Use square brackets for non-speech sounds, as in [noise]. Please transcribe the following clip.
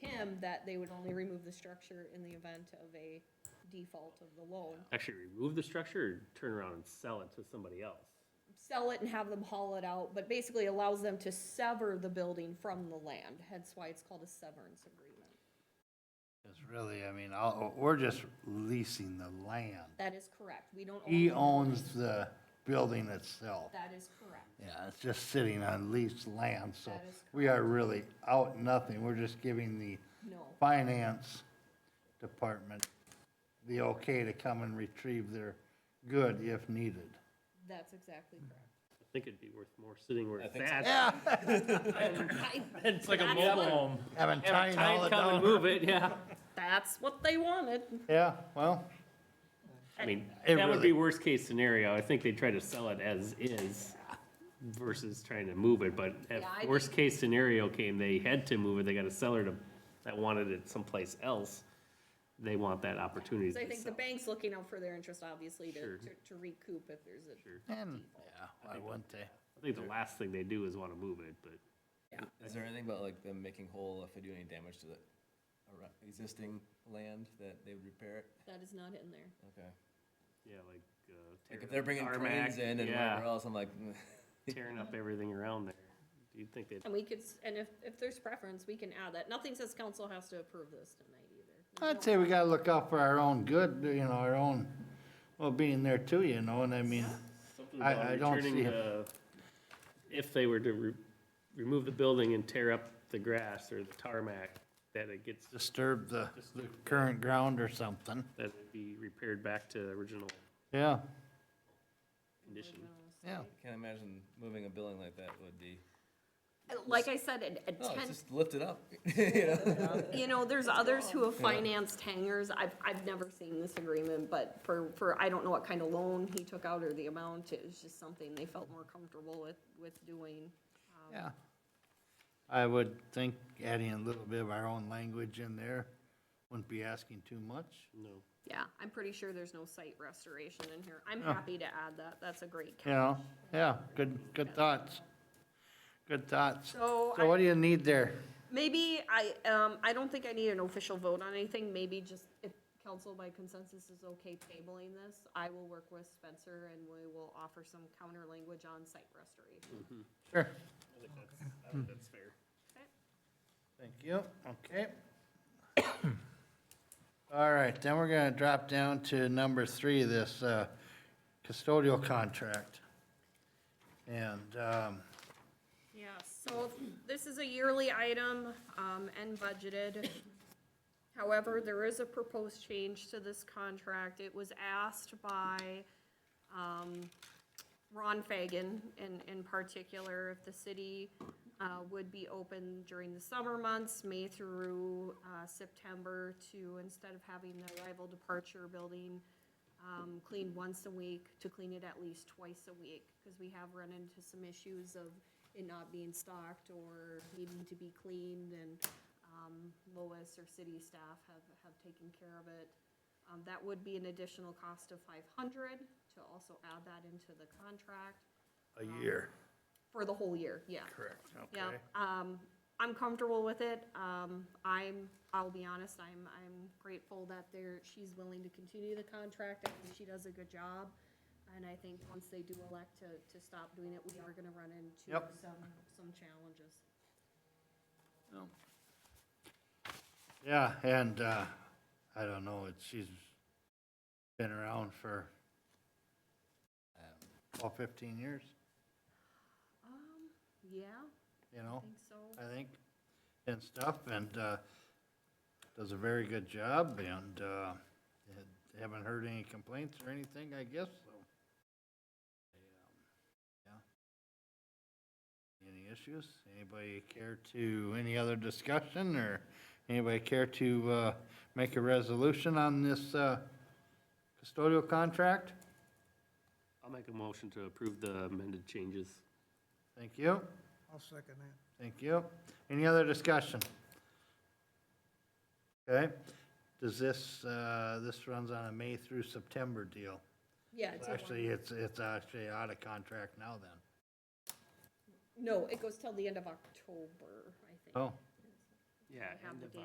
him that they would only remove the structure in the event of a default of the loan. Actually remove the structure or turn around and sell it to somebody else? Sell it and have them haul it out, but basically allows them to sever the building from the land, hence why it's called a severance agreement. It's really, I mean, all, we're just leasing the land. That is correct, we don't. own He the owns the building itself. building. That is correct. Yeah, it's just sitting on leased land, so That is we are really out nothing. We're just giving the No. finance department the okay to come and retrieve their good if needed. That's exactly correct. I think it'd be worth more sitting where it's think so. at. Yeah, It's like a mobile home. [laughs] haven't Have tied all time it come and down. move it, [laughs] yeah. That's what they wanted. Yeah, well, I mean, It that would be really- worst case scenario. I think they try to sell it as is versus trying to move it, but if Yeah, I worst case scenario came, they had to move it, they got a seller to, that wanted it someplace else. They want that opportunity Because I to think the sell. bank's looking out for their interest, obviously, to, Sure. to to recoup if there's a, and, yeah, why wouldn't they? I think the last thing they do is wanna move it, but Is there anything about like them making whole if they do any damage to the arou- existing land that they would repair it? that is not in there. Okay. yeah, like, uh. Like tearing if they're up bringing tarmac, cranes in and yeah, whatever else, I'm like, mm. Tearing up everything around there. Do you think that, And we could, s- and if, if there's preference, we can add that. Nothing says council has to approve this tonight either. I'd say we gotta look out for our own good, you know, our own well-being there too, you know, and I mean, something I- about I don't returning see it. the, if they were to re- remove the building and tear up the grass or the tarmac, that it gets disturb the, the current ground or something. that would be repaired back to original Yeah, condition. yeah. can't imagine moving a building like that would be. Like I said, a- a No, ten, just lift it up. [laughs] you know? you know, there's others who have financed hangars. I've, I've never seen this agreement, but for, for, I don't know what kind of loan he took out or the amount. It was just something they felt more comfortable with, with doing. Yeah. I would think adding a little bit of our own language in there wouldn't be asking too much. No. Yeah, I'm pretty sure there's no site restoration in here. I'm happy to add that. That's a great You catch. know, yeah, good, good thoughts. Good thoughts. So So what do you need there? Maybe I, um, I don't think I need an official vote on anything, maybe just if council by consensus is okay tabling this, I will work with Spencer and we will offer some counter language on site restoration. Sure. Hmm. That's fair. Thank you, okay. [coughs] All right, then we're gonna drop down to number three, this, uh, custodial contract. And, um, Yeah, so this is a yearly item, um, and budgeted. However, there is a proposed change to this contract. It was asked by, um, Ron Fagan in, in particular, if the city, uh, would be open during the summer months, May through, uh, September to, instead of having the arrival departure building, um, cleaned once a week, to clean it at least twice a week, because we have run into some issues of it not being stocked or needing to be cleaned, and, um, Lois or city staff have, have taken care of it. Um, that would be an additional cost of five hundred, to also add that into the contract a year. for the whole year, yeah. Correct. Yeah, Okay. um, I'm comfortable with it. Um, I'm, I'll be honest, I'm, I'm grateful that there, she's willing to continue the contract. I think she does a good job. And I think once they do elect to, to stop doing it, we are gonna run into Yep. some, some challenges. Yeah, and, uh, I don't know, it's, she's been around for, um, all fifteen years, Um, yeah, you I know, think so. I think, and stuff, and, uh, does a very good job, and, uh, had- haven't heard any complaints or anything, I guess, so. Yeah. Any issues? Anybody care to, any other discussion, or anybody care to, uh, make a resolution on this, uh, custodial contract? I'll make a motion to approve the amended changes. Thank you. I'll second that. Thank you. Any other discussion? Okay, does this, uh, this runs on a May through September deal? Yeah. it's a Actually, one- it's, it's actually out of contract now then. No, it goes till the end of October, I think. Oh. Yeah, I have the date.